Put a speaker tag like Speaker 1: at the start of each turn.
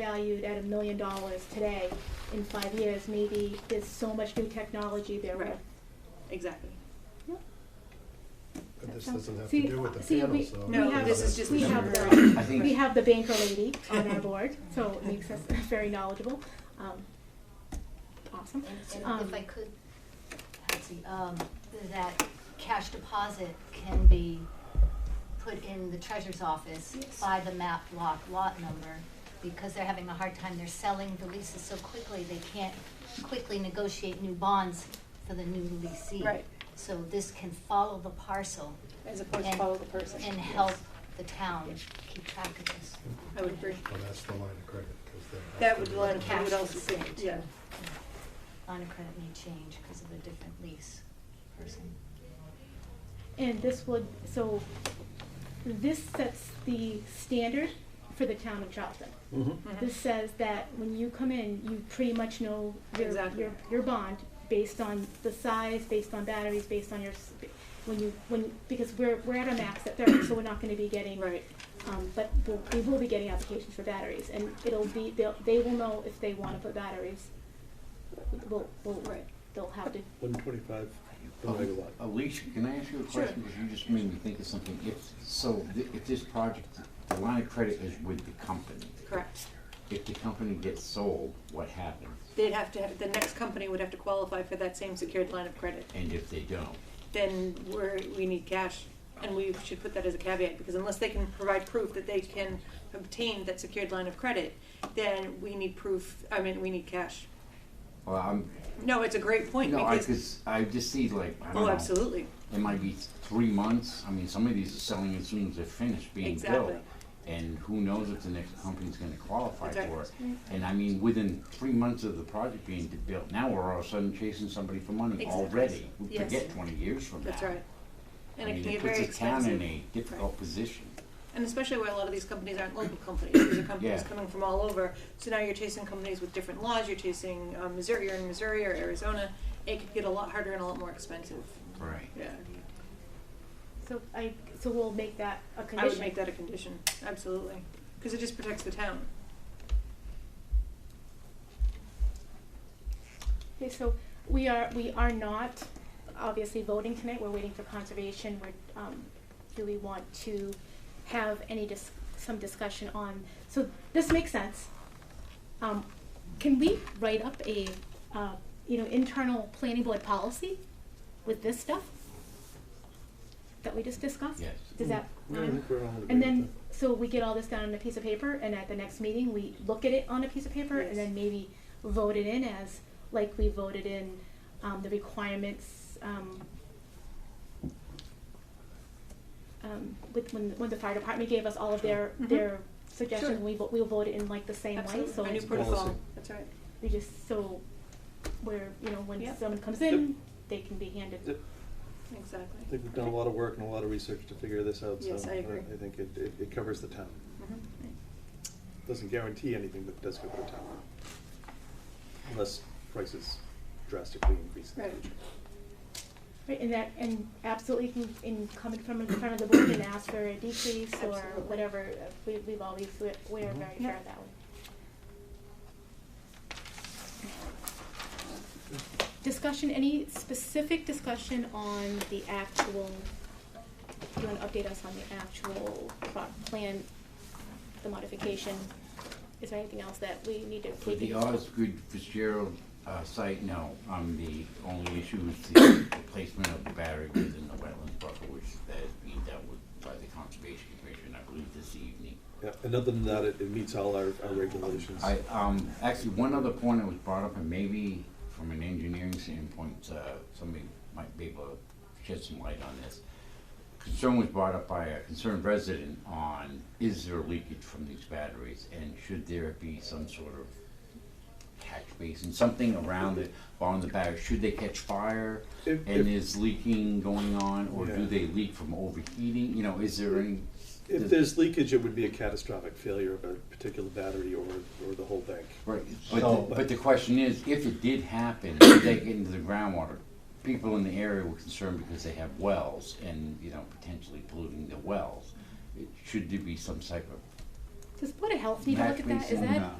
Speaker 1: valued at a million dollars today, in five years, maybe there's so much new technology there.
Speaker 2: Right. Exactly.
Speaker 1: That
Speaker 3: But this
Speaker 1: sounds-
Speaker 3: doesn't have
Speaker 1: see,
Speaker 3: to do with the
Speaker 1: see,
Speaker 3: panel,
Speaker 1: we-
Speaker 3: so.
Speaker 1: No,
Speaker 2: No,
Speaker 1: We have-
Speaker 2: this is just
Speaker 1: we
Speaker 2: the
Speaker 1: have
Speaker 2: number.
Speaker 1: the-
Speaker 2: I think
Speaker 1: We have the banker lady on our board, so it makes us very knowledgeable. Um, Awesome.
Speaker 4: And,
Speaker 1: Um,
Speaker 4: and if I could, Patsy, um, that cash deposit can be put in the treasurer's office
Speaker 1: Yes.
Speaker 4: by the map block lot number, because they're having a hard time, they're selling the leases so quickly, they can't quickly negotiate new bonds for the new leasee.
Speaker 2: Right.
Speaker 4: So this can follow the parcel
Speaker 2: As opposed to
Speaker 4: And-
Speaker 2: follow the person.
Speaker 4: and help the town keep track of this.
Speaker 2: I would agree.
Speaker 3: Well, that's the line of credit, because they have
Speaker 2: That
Speaker 3: to
Speaker 2: would
Speaker 3: be-
Speaker 2: line, I
Speaker 4: Cash
Speaker 2: would also
Speaker 4: is
Speaker 2: say,
Speaker 4: saved.
Speaker 2: yeah.
Speaker 4: Line of credit may change because of a different lease person.
Speaker 1: And this would, so this sets the standard for the town of Charlton.
Speaker 5: Mm-hmm.
Speaker 3: Mhm.
Speaker 2: Mm-hmm.
Speaker 1: This says that when you come in, you pretty much know your,
Speaker 2: Exactly.
Speaker 1: your, your bond based on the size, based on batteries, based on your, s- when you, when, because we're, we're at a max at thirty, so we're not gonna be getting
Speaker 2: Right.
Speaker 1: Um, but we'll, we will be getting applications for batteries, and it'll be, they'll, they will know if they wanna put batteries. We'll, we'll,
Speaker 2: Right.
Speaker 1: they'll have to,
Speaker 5: One twenty-five per megawatt.
Speaker 6: Alicia, can I ask you a
Speaker 2: Sure.
Speaker 6: question? Because you just made me think of something. If, so thi- if this project, the line of credit is with the company.
Speaker 2: Correct.
Speaker 6: If the company gets sold, what happens?
Speaker 2: They'd have to, have the next company would have to qualify for that same secured line of credit.
Speaker 6: And if they don't?
Speaker 2: Then we're, we need cash, and we should put that as a caveat, because unless they can provide proof that they can obtain that secured line of credit, then we need proof, I mean, we need cash.
Speaker 6: Well, I'm,
Speaker 2: No, it's a great point,
Speaker 6: no, I,
Speaker 2: because,
Speaker 6: cause I just see like, I don't
Speaker 2: oh,
Speaker 6: know.
Speaker 2: absolutely,
Speaker 6: It might be three months. I mean, some of these are selling as soon as they're finished being built.
Speaker 2: Exactly.
Speaker 6: And who knows if the next company's gonna qualify
Speaker 2: That's right.
Speaker 6: for it. And I mean, within three months of the project being built, now we're all of a sudden chasing somebody for money
Speaker 2: Exactly.
Speaker 6: already. We
Speaker 2: Yes.
Speaker 6: forget twenty years from now.
Speaker 2: that's right. And
Speaker 6: I
Speaker 2: it
Speaker 6: mean,
Speaker 2: can get very
Speaker 6: puts the
Speaker 2: expensive.
Speaker 6: town in a difficult position.
Speaker 2: And especially where a lot of these companies aren't local companies, these are companies
Speaker 6: Yeah.
Speaker 2: coming from all over. So now you're chasing companies with different laws, you're chasing um, Missouri, you're in Missouri or Arizona. It could get a lot harder and a lot more expensive.
Speaker 6: Right.
Speaker 2: Yeah,
Speaker 1: so I, so we'll make that a condition.
Speaker 2: I would make that a condition, absolutely. Because it just protects the town.
Speaker 1: Okay, so we are, we are not obviously voting tonight, we're waiting for conservation, we're, um, do we want to have any dis- some discussion on, so this makes sense. Um, can we write up a, uh, you know, internal planning board policy with this stuff? That we just discussed?
Speaker 6: Yes.
Speaker 1: Does that?
Speaker 5: Mm-hmm. Yeah, I think we're all in
Speaker 1: And
Speaker 5: agreement
Speaker 1: then, so we get all this down on a piece of paper, and at the next meeting, we look at it on a piece of paper,
Speaker 2: Yes.
Speaker 1: and then maybe vote it in as, like we voted in, um, the requirements, um, um, with, when, when the fire department gave us all of their,
Speaker 2: Mhm.
Speaker 1: their suggestions,
Speaker 2: Sure.
Speaker 1: we, vo- we'll vote it in like the same way,
Speaker 2: Absolutely.
Speaker 1: so
Speaker 2: A new
Speaker 1: it's,
Speaker 2: protocol,
Speaker 3: Policy.
Speaker 2: that's right.
Speaker 1: we just, so, where, you know, when
Speaker 2: Yep.
Speaker 1: someone comes
Speaker 5: Yep.
Speaker 1: in, they can be handed.
Speaker 5: that-
Speaker 2: Exactly.
Speaker 5: I think we've done a lot of work and a lot of research to figure this out, so.
Speaker 2: Yes, I agree.
Speaker 5: I think it, it, it covers the town.
Speaker 2: Mhm.
Speaker 5: Doesn't guarantee anything, but does cover the town. Unless prices drastically increase in the
Speaker 2: Right.
Speaker 5: future.
Speaker 1: Right, and that, and absolutely can, in coming from in front of the board and ask for a decrease or
Speaker 2: Absolutely.
Speaker 1: whatever, uh, we, we've always, we- we are very fair
Speaker 2: Yep.
Speaker 1: that way. Discussion, any specific discussion on the actual, do you wanna update us on the actual pro- plan, the modification? Is there anything else that we need to
Speaker 6: For
Speaker 1: take
Speaker 6: the
Speaker 1: into?
Speaker 6: Osgood Fitzgerald uh, site, no. Um, the only issue is the the placement of the battery within the wetlands buffer, which that is being dealt with by the Conservation Commission, I believe, this evening.
Speaker 5: Yeah, and other than that, it, it meets all our, our regulations.
Speaker 6: I, um, actually, one other point that was brought up, and maybe from an engineering standpoint, uh, somebody might be able to shed some light on this. Concern was brought up by a concerned resident on, is there leakage from these batteries, and should there be some sort of catch basin, something around the, on the battery, should they catch fire?
Speaker 5: If-
Speaker 6: And
Speaker 5: if-
Speaker 6: is leaking going on, or
Speaker 5: Yeah.
Speaker 6: do they leak from overheating, you know, is there any?
Speaker 5: If there's leakage, it would be a catastrophic failure of a particular battery or, or the whole bank.
Speaker 6: Right, but,
Speaker 5: So-
Speaker 6: the, but the question is, if it did happen, did they get into the groundwater? People in the area were concerned because they have wells and, you know, potentially polluting the wells. It- Should there be some type of
Speaker 1: Does Board of Health need to look at that? Is
Speaker 6: Matchmaking,
Speaker 1: that,
Speaker 6: uh,